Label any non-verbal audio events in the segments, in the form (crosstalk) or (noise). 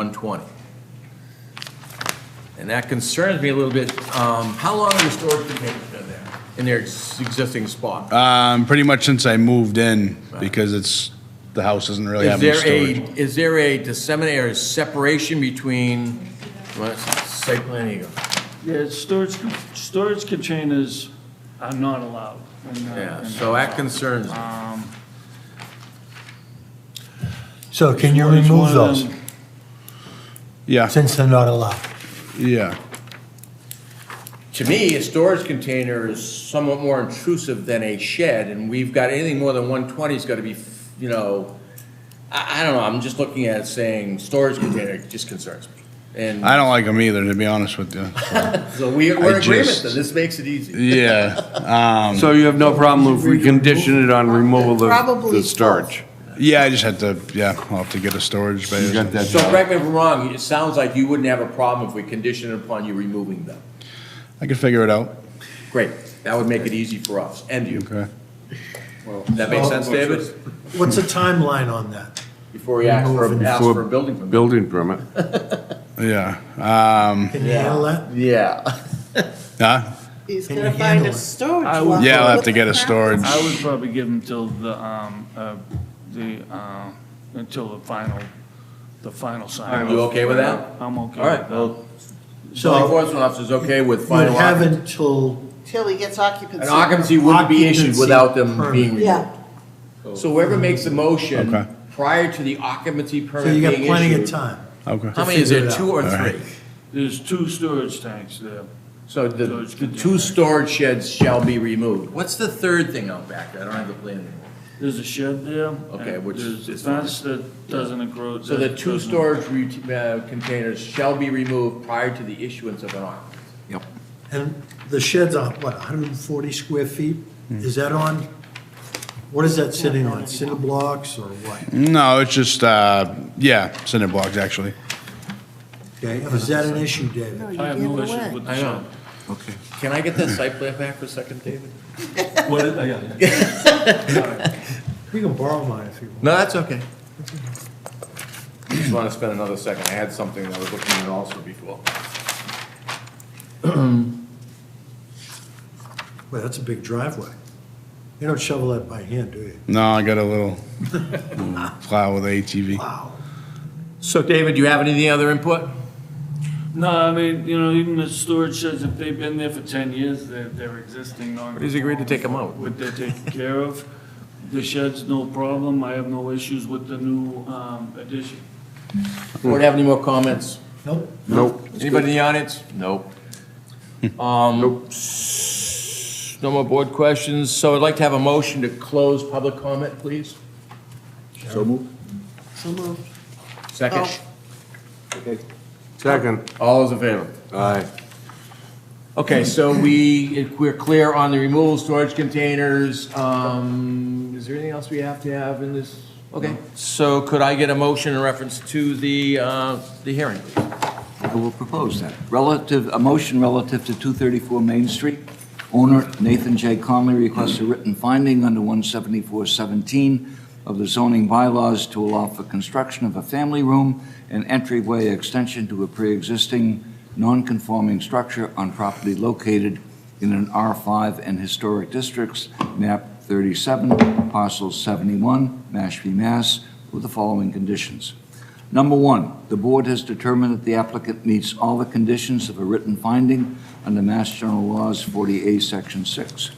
120. And that concerns me a little bit. Um, How long are the storage containers been there, in their ex- existing spot? Um, pretty much since I moved in, because it's, the house doesn't really Is have any there a, storage. is there a disseminate or separation between, what, site plan here? Yeah, storage, storage containers are not allowed. in, uh, Yeah, in- so that concerns me. So can you It's one remove of those, them- Yeah, since they're not allowed? yeah. To me, a storage container is somewhat more intrusive than a shed, and we've got, anything more than 120's got to be, you know, I, I don't know, I'm just looking at it saying, storage container just concerns me. And I don't like them either, to be honest with you. So we, we're in agreement just- that this makes it easy. Yeah, um, So you have no problem if we condition it on removal of Probably the starch? yeah, I just had to, yeah, I'll have to get a storage bay. You or got something. that? So down. correct me if I'm wrong, it sounds like you wouldn't have a problem if we conditioned it upon you removing them. I could figure it out. Great, that would make it easy for us and you. Okay. That makes sense, David? What's the timeline on that? Before we ask for, ask for a building permit. Building permit. Yeah, um, Can you handle that? Yeah. huh? He's Can gonna you find handle a it? storage. I would- locker. Yeah, I'll have to get a storage. I would probably give them till the, um, uh, the, uh, until the final, the final sign. You okay with that? I'm okay. All right, with well, zoning So enforcement officer's okay with you final. have occup- until, Till he gets occupancy. An occupancy wouldn't be issued Occupancy without them being permit. removed. Yeah, So whoever makes the Okay. motion prior to the occupancy so permit you being got issued. plenty of time. Okay. How many is figure there, it out. two or All right. three? that. There's two storage tanks there. So the, Storage the container. two storage sheds shall be removed. What's the third thing out back? I don't have the plan anymore. There's a shed there. and Okay, which There's a is fine. fence that doesn't encroach. So the that two doesn't- storage re- uh, containers shall be removed prior to the issuance of an occupancy. And the shed's on, what, 140 square feet? Is that on, what is that sitting on, cinder blocks or what? No, it's just, uh, yeah, cinder blocks, actually. Okay, is that an issue, David? I have no issues with the I know. shed. Can I get that site plan back for a second, David? We can borrow mine if you want. No, that's okay. I Just want to spend another second. I had something I was looking at also before. Well, that's a big driveway. You don't shovel that by hand, do you? No, I got (laughs) a little plow with ATV. So David, do you have any other input? No, I mean, you know, even the storage sheds, if they've been there for 10 years, they're, they're existing non. He's agreed to take them out. What they're taken care of. The shed's no problem. I have no issues with the new um, addition. Board have any more comments? Nope. Nope. Anybody in the audience? Nope. Um, s- no more board questions, so I'd like to have a motion to close public comment, please. so moved. Second? Oh. Second. All those in favor? Aye. Okay, so we, if we're clear on the removal storage containers. Um, is there anything else we have to have in this? Okay, so could I get a motion in reference to the, uh, the hearing? please? I will propose that. Relative, a motion relative to 234 Main Street. Owner Nathan J. Conley requests a written finding under 174-17 of the zoning bylaws to allow for construction of a family room and entryway extension to a pre-existing non-conforming structure on property located in an R5 and Historic Districts, map 37, parcel 71, Mashpee, Mass, with the following conditions. Number one, the board has determined that the applicant meets all the conditions of a written finding under Mass General Laws 40A, Section 6.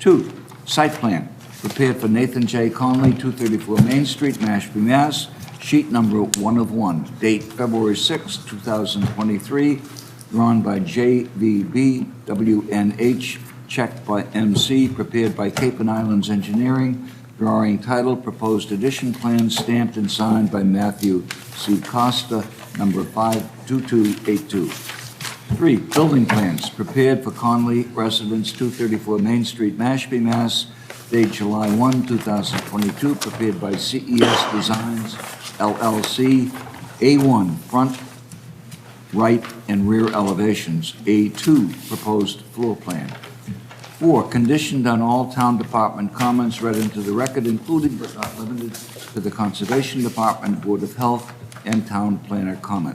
Two, site plan, prepared for Nathan J. Conley, 234 Main Street, Mashpee, Mass, sheet number one of one, date February 6, 2023, drawn by JVB WNH, checked by MC, prepared by Cape and Islands Engineering, drawing title, proposed addition plan, stamped and signed by Matthew C. Costa, number 52282. Three, building plans prepared for Conley Residence, 234 Main Street, Mashpee, Mass. Date July 1, 2022, prepared by CES Designs LLC. A1, front, right, and rear elevations. A2, proposed floor plan. Four, conditioned on all town department comments read into the record, including but not limited to the Conservation Department, Board of Health, and town planner comment.